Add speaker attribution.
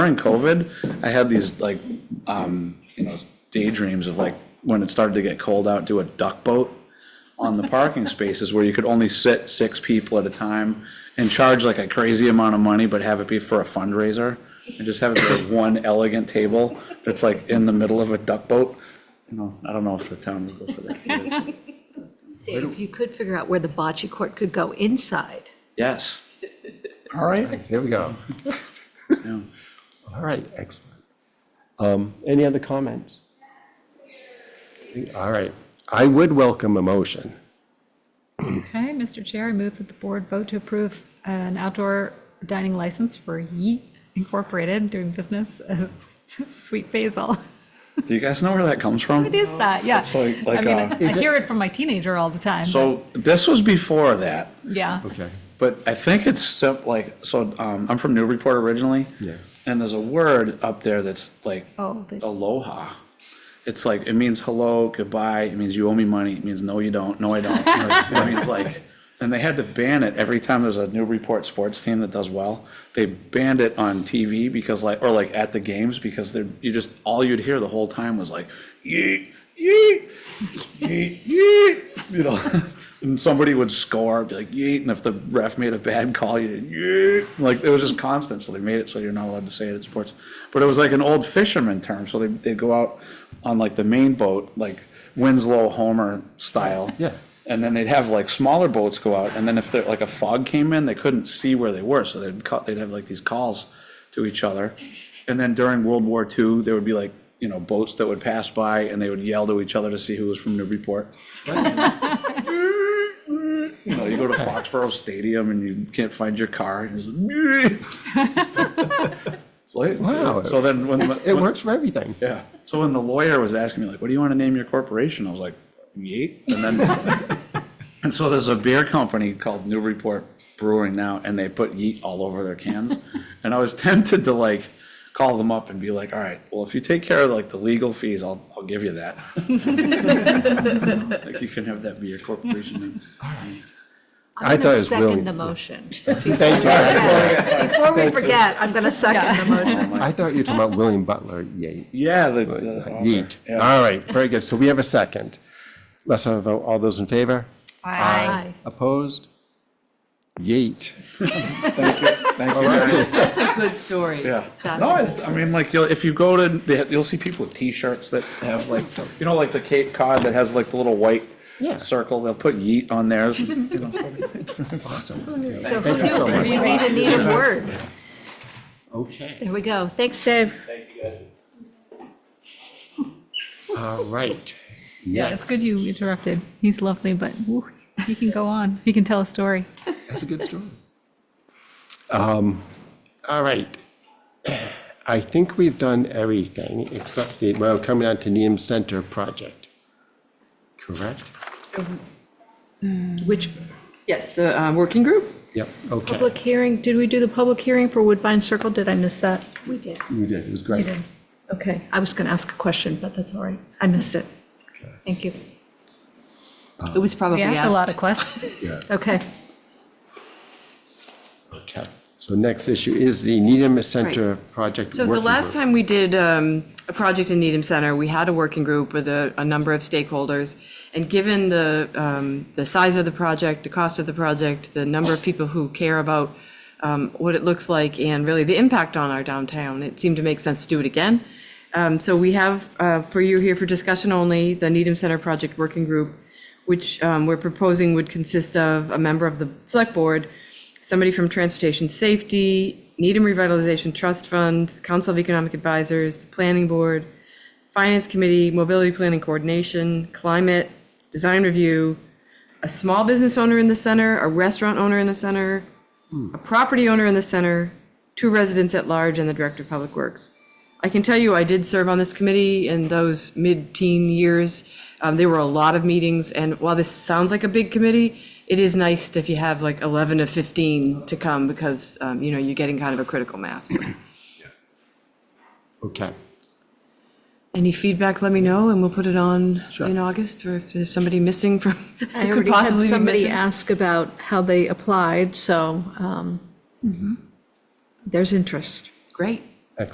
Speaker 1: during COVID, I had these like, um, you know, daydreams of like, when it started to get cold out, do a duck boat on the parking spaces where you could only sit six people at a time and charge like a crazy amount of money, but have it be for a fundraiser. And just have it be like one elegant table that's like in the middle of a duck boat. You know, I don't know if the town would go for that.
Speaker 2: Dave, you could figure out where the bocce court could go inside.
Speaker 1: Yes.
Speaker 3: All right, there we go.
Speaker 1: yeah.
Speaker 3: All right, excellent. Um, Any other comments? All right, I would welcome a motion.
Speaker 4: Okay, Mr. Chair, I move that the board vote to approve an outdoor dining license for Yeet Incorporated doing business as Sweet Basil.
Speaker 1: Do you guys know where that comes from?
Speaker 4: What is that? Yeah.
Speaker 1: Oh, It's like- like,
Speaker 4: I mean,
Speaker 1: uh,
Speaker 4: I hear it from my teenager all the time.
Speaker 1: So this was before that,
Speaker 4: Yeah.
Speaker 3: Okay.
Speaker 1: but I think it's sim- like, so um, I'm from Newburyport originally.
Speaker 3: Yeah.
Speaker 1: And there's a word up there that's like
Speaker 4: Oh, the-
Speaker 1: aloha. It's like, it means hello, goodbye, it means you owe me money, it means no, you don't, no, I don't. It means like, and they had to ban it every time there's a Newburyport sports team that does well. They banned it on TV because like, or like at the games because they're, you just, all you'd hear the whole time was like, yeet, yeet, yeet, yeet, you know? And somebody would score, be like, yeet, and if the ref made a bad call, you did yeet. Like, it was just constant, so they made it so you're not allowed to say it in sports. But it was like an old fisherman term, so they, they'd go out on like the main boat, like Winslow Homer style.
Speaker 3: Yeah.
Speaker 1: And then they'd have like smaller boats go out, and then if there, like a fog came in, they couldn't see where they were, so they'd cut, they'd have like these calls to each other. And then during World War II, there would be like, you know, boats that would pass by and they would yell to each other to see who was from Newburyport. You know, you go to Foxborough Stadium and you can't find your car, and it's like. It's like-
Speaker 3: Wow.
Speaker 1: So then when. the-
Speaker 3: It
Speaker 1: when-
Speaker 3: works for everything.
Speaker 1: Yeah, so when the lawyer was asking me like, what do you want to name your corporation? I was like, Yeet, and then. And so there's a beer company called Newburyport Brewing now, and they put yeet all over their cans. And I was tempted to like call them up and be like, all right, well, if you take care of like the legal fees, I'll, I'll give you that. Like you can have that be your corporation name.
Speaker 3: I thought it was
Speaker 2: I'm going to
Speaker 3: really.
Speaker 2: second the motion.
Speaker 3: Thank you.
Speaker 2: Before we forget, I'm going to second the motion.
Speaker 3: I thought you were talking about William Butler Yeat.
Speaker 1: Yeah, the.
Speaker 3: but
Speaker 1: the
Speaker 3: not
Speaker 1: author,
Speaker 3: Yeat.
Speaker 1: yeah.
Speaker 3: All right, very good. So we have a second. Let's have a vote. All those in favor?
Speaker 2: Aye.
Speaker 3: Opposed? Yeet.
Speaker 5: That's a good story.
Speaker 1: Yeah.
Speaker 2: That's
Speaker 1: No, it's, I mean, like, you'll, if you go to, they have- you'll see people with T-shirts that have like, you know, like the Cape Cod that has like the little white
Speaker 3: Yeah.
Speaker 1: circle, they'll put yeet on theirs.
Speaker 3: Awesome.
Speaker 2: So who
Speaker 3: Thank you so
Speaker 2: knew?
Speaker 3: much.
Speaker 2: We even need a word.
Speaker 3: Okay.
Speaker 2: There we go. Thanks, Dave.
Speaker 3: All right.
Speaker 4: Yeah, it's good you interrupted. He's lovely, but woo, he can go on. He can tell a story.
Speaker 3: That's a good story. Um, All right. I think we've done everything except the, well, coming on to Needham Center project. Correct?
Speaker 2: Which
Speaker 5: Yes, the um, working group?
Speaker 3: Yep, okay.
Speaker 2: public hearing, did we do the public hearing for Woodbine Circle? Did I miss that? We did.
Speaker 3: You did, it was great.
Speaker 2: Okay, I was going to ask a question, but that's all right. I missed it. Thank you.
Speaker 5: It was probably
Speaker 4: We
Speaker 5: asked.
Speaker 4: asked a lot of questions.
Speaker 2: Okay.
Speaker 3: Okay. So next issue is the Needham Center project.
Speaker 5: So the
Speaker 3: working
Speaker 5: last
Speaker 3: group.
Speaker 5: time we did um, a project in Needham Center, we had a working group with a, a number of stakeholders. And given the, um, the size of the project, the cost of the project, the number of people who care about um, what it looks like and really the impact on our downtown, it seemed to make sense to do it again. Um, So we have uh, for you here for discussion only, the Needham Center Project Working Group, which um, we're proposing would consist of a member of the Select Board, somebody from Transportation Safety, Needham Revitalization Trust Fund, Council of Economic Advisors, the Planning Board, Finance Committee, Mobility Planning Coordination, Climate, Design Review, a small business owner in the center, a restaurant owner in the center, a property owner in the center, two residents at large, and the Director of Public Works. I can tell you, I did serve on this committee in those mid-teen years. Um, There were a lot of meetings, and while this sounds like a big committee, it is nice if you have like 11 to 15 to come, because, um, you know, you're getting kind of a critical mass.
Speaker 3: Okay.
Speaker 5: Any feedback, let me know, and we'll put it on
Speaker 3: Sure.
Speaker 5: in August, or if there's somebody missing from,
Speaker 2: I
Speaker 5: who could
Speaker 2: already had
Speaker 5: possibly be
Speaker 2: somebody
Speaker 5: missing.
Speaker 2: ask about how they applied, so um, there's interest.
Speaker 5: Great.